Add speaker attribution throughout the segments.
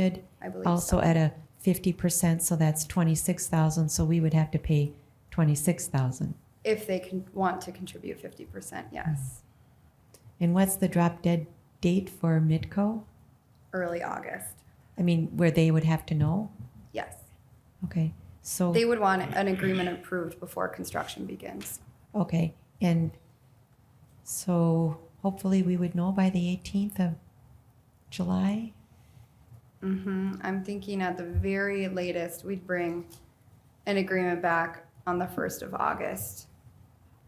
Speaker 1: bid,
Speaker 2: I believe so.
Speaker 1: also at a fifty percent, so that's twenty-six thousand, so we would have to pay twenty-six thousand.
Speaker 2: If they can, want to contribute fifty percent, yes,
Speaker 1: And what's the drop dead date for Midco?
Speaker 2: early August,
Speaker 1: I mean, where they would have to know?
Speaker 2: yes.
Speaker 1: Okay, so,
Speaker 2: They would want an agreement approved before construction begins.
Speaker 1: okay, and so hopefully we would know by the eighteenth of July?
Speaker 2: hmm I'm thinking at the very latest, we'd bring an agreement back on the first of August.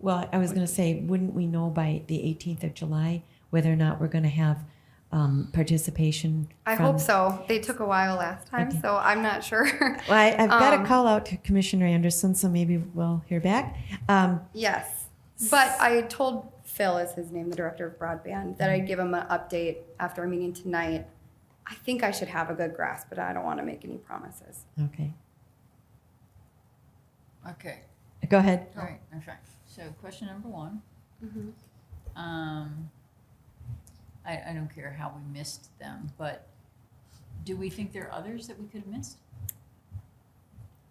Speaker 1: Well, I was gonna say, wouldn't we know by the eighteenth of July whether or not we're gonna have, um, participation?
Speaker 2: I
Speaker 1: from-
Speaker 2: hope so. They took a while last time,
Speaker 1: Okay.
Speaker 2: so I'm not sure.
Speaker 1: Well, I, I've got a
Speaker 2: Um,
Speaker 1: call out to Commissioner Anderson, so maybe we'll hear back. Um,
Speaker 2: Yes. But I had told Phil is his name, the director of broadband, that I'd give him an update after our meeting tonight. I think I should have a good grasp, but I don't want to make any promises.
Speaker 1: okay,
Speaker 3: Okay,
Speaker 1: go ahead.
Speaker 2: Oh.
Speaker 3: all right, I'm sorry. So question number one,
Speaker 2: Mm-hmm.
Speaker 3: um, I, I don't care how we missed them, but do we think there are others that we could have missed?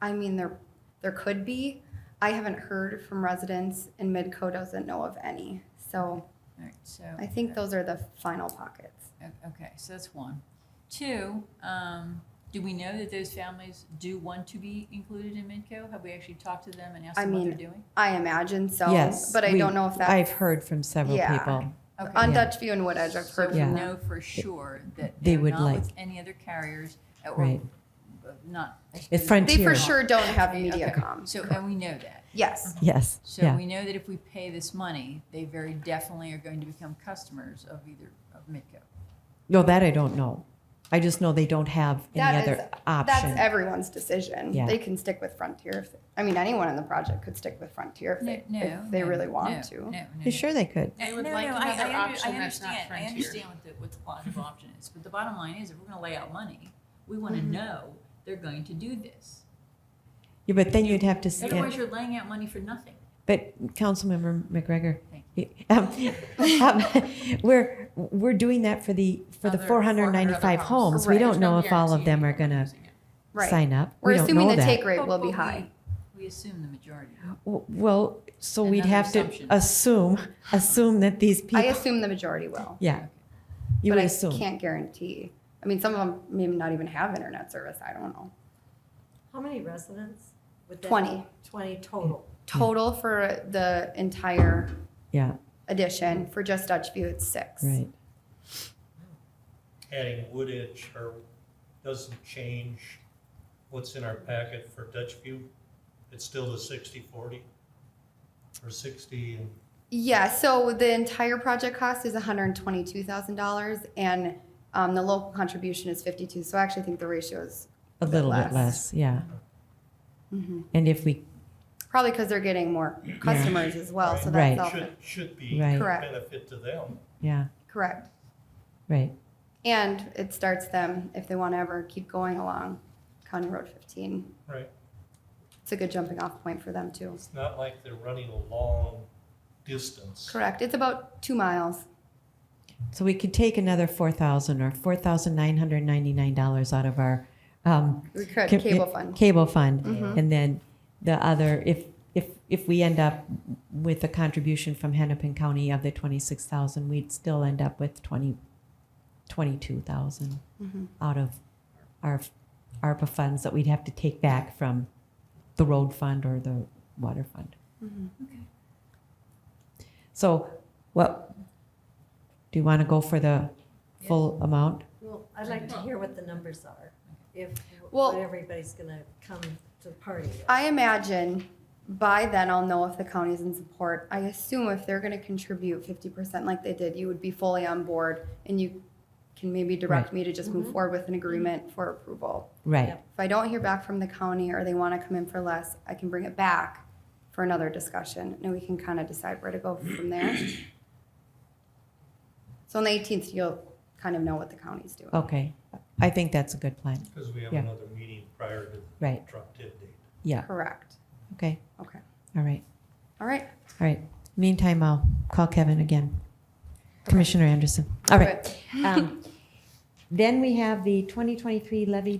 Speaker 2: I mean, there, there could be. I haven't heard from residents and Midco doesn't know of any. So
Speaker 3: All right, so.
Speaker 2: I think those are the final pockets.
Speaker 3: o- Okay, so that's one. Two, um, do we know that those families do want to be included in Midco? Have we actually talked to them and asked
Speaker 2: I
Speaker 3: them what they're
Speaker 2: mean,
Speaker 3: doing?
Speaker 2: I imagine so.
Speaker 1: Yes.
Speaker 2: But I
Speaker 1: we-
Speaker 2: don't know if that's.
Speaker 1: I've heard from several
Speaker 2: Yeah.
Speaker 1: people.
Speaker 3: Okay.
Speaker 2: On
Speaker 1: Yeah.
Speaker 2: Dutch View and Wood Edge, I've
Speaker 3: So
Speaker 2: heard
Speaker 3: we
Speaker 1: Yeah.
Speaker 2: from
Speaker 3: know
Speaker 2: them.
Speaker 3: for sure that
Speaker 1: They
Speaker 3: they're
Speaker 1: would
Speaker 3: not with
Speaker 1: like-
Speaker 3: any other carriers uh, or
Speaker 1: Right.
Speaker 3: uh, not.
Speaker 1: It's Frontier.
Speaker 2: They for
Speaker 1: Here.
Speaker 2: sure don't have
Speaker 3: Okay,
Speaker 2: MediaCom.
Speaker 3: So, and we know that.
Speaker 2: Yes.
Speaker 1: Yes.
Speaker 3: So
Speaker 1: yeah.
Speaker 3: we know that if we pay this money, they very definitely are going to become customers of either of Midco.
Speaker 1: no, that I don't know. I just know they don't have any
Speaker 2: That
Speaker 1: other
Speaker 2: is-
Speaker 1: option.
Speaker 2: That's everyone's decision.
Speaker 1: Yeah.
Speaker 2: They can stick with Frontier. If, I mean, anyone in the project could stick with Frontier if,
Speaker 3: No,
Speaker 2: they,
Speaker 3: no,
Speaker 2: if they
Speaker 3: no,
Speaker 2: really want
Speaker 3: no,
Speaker 2: to.
Speaker 3: No, no,
Speaker 1: you sure they could?
Speaker 3: no.
Speaker 4: They would
Speaker 3: No,
Speaker 4: like
Speaker 3: no, I- I
Speaker 4: another
Speaker 3: under-
Speaker 4: option that's not
Speaker 3: I understand, I
Speaker 4: Frontier.
Speaker 3: understand what the, what the bottom of option is, but the bottom line is, if we're gonna lay out money, we wanna know they're going to do this.
Speaker 1: Yeah, but then you'd have to. s-
Speaker 3: Otherwise, you're laying out money for nothing.
Speaker 1: But Councilmember McGregor,
Speaker 3: Thank
Speaker 1: um, um, we're we're doing that for the for the
Speaker 4: Other
Speaker 1: 495
Speaker 4: 400
Speaker 1: homes. We
Speaker 2: Right.
Speaker 1: don't
Speaker 4: There's
Speaker 1: know
Speaker 4: no
Speaker 1: if all of
Speaker 4: guarantee
Speaker 1: them are
Speaker 4: anyone
Speaker 1: going to
Speaker 4: using it.
Speaker 2: Right.
Speaker 1: sign up.
Speaker 2: We're
Speaker 1: we don't
Speaker 2: assuming
Speaker 1: know
Speaker 2: the
Speaker 1: that.
Speaker 2: take rate
Speaker 3: But-
Speaker 2: will be
Speaker 3: but we-
Speaker 2: high.
Speaker 3: We assume the majority.
Speaker 1: W- Well, so we'd
Speaker 3: Another
Speaker 1: have to
Speaker 3: assumption.
Speaker 1: assume, assume that these
Speaker 2: I
Speaker 1: people,
Speaker 2: assume the majority will.
Speaker 1: yeah, you
Speaker 2: but
Speaker 1: would
Speaker 2: I
Speaker 1: assume.
Speaker 2: can't guarantee. I mean, some of them may not even have internet service. I don't know.
Speaker 1: Hmm.
Speaker 5: How many residents? would that
Speaker 2: 20.
Speaker 5: be? Twenty total.
Speaker 2: Total for the entire
Speaker 1: Yeah,
Speaker 2: edition for just Dutch View, it's six.
Speaker 1: right.
Speaker 6: adding wood edge or doesn't change what's in our packet for Dutch View. It's still the sixty forty or sixty and
Speaker 2: Yeah, so the entire project cost is $122,000 and um, the local contribution is 52. So I actually think the ratio is
Speaker 1: A
Speaker 2: bit
Speaker 1: little bit
Speaker 2: less.
Speaker 1: less, yeah.
Speaker 2: Mhm.
Speaker 1: And if we,
Speaker 2: probably because they're getting more customers as well. So
Speaker 1: Right.
Speaker 2: that's all
Speaker 6: should, should be
Speaker 1: Right.
Speaker 6: a
Speaker 2: Correct.
Speaker 6: benefit to them.
Speaker 1: yeah,
Speaker 2: correct.
Speaker 1: right.
Speaker 2: And it starts them if they want to ever keep going along County Road 15.
Speaker 6: Right.
Speaker 2: It's a good jumping off point for them too.
Speaker 6: It's not like they're running a long distance.
Speaker 2: Correct. It's about two miles.
Speaker 1: So we could take another 4,000 or $4,999 out of our um,
Speaker 2: We could
Speaker 1: Ca-
Speaker 2: cable fund. Mm-hmm.
Speaker 1: cable fund. And then the other, if, if, if we end up with a contribution from Hennepin County of the 26,000, we'd still end up with 20, 22,000
Speaker 2: Mhm.
Speaker 1: out of our ARPA funds that we'd have to take back from the road fund or the water fund.
Speaker 3: Okay.
Speaker 1: So what, do you want to go for the full amount?
Speaker 5: Well, I'd like to hear what the numbers are, if,
Speaker 2: Well-
Speaker 5: what everybody's gonna come to the party with.
Speaker 2: I imagine by then I'll know if the county's in support. I assume if they're going to contribute 50% like they did, you would be fully on board and you can maybe direct
Speaker 1: Right.
Speaker 2: me to just move forward with an agreement for approval.
Speaker 1: Right,
Speaker 5: Yep.
Speaker 2: If I don't hear back from the county or they want to come in for less, I can bring it back for another discussion and we can kind of decide where to go from there. So on the 18th, you'll kind of know what the county's doing.
Speaker 1: okay. I think that's a good plan,
Speaker 6: Because we have
Speaker 1: Yeah.
Speaker 6: another meeting prior to the
Speaker 1: right,
Speaker 6: drop dead date.
Speaker 1: yeah,
Speaker 2: Correct.
Speaker 1: okay,
Speaker 2: Okay.
Speaker 1: all right.
Speaker 2: All right.
Speaker 1: All right. Meantime, I'll call Kevin again. Commissioner Anderson. All
Speaker 2: Do
Speaker 1: right. Um, Then we have the 2023 levy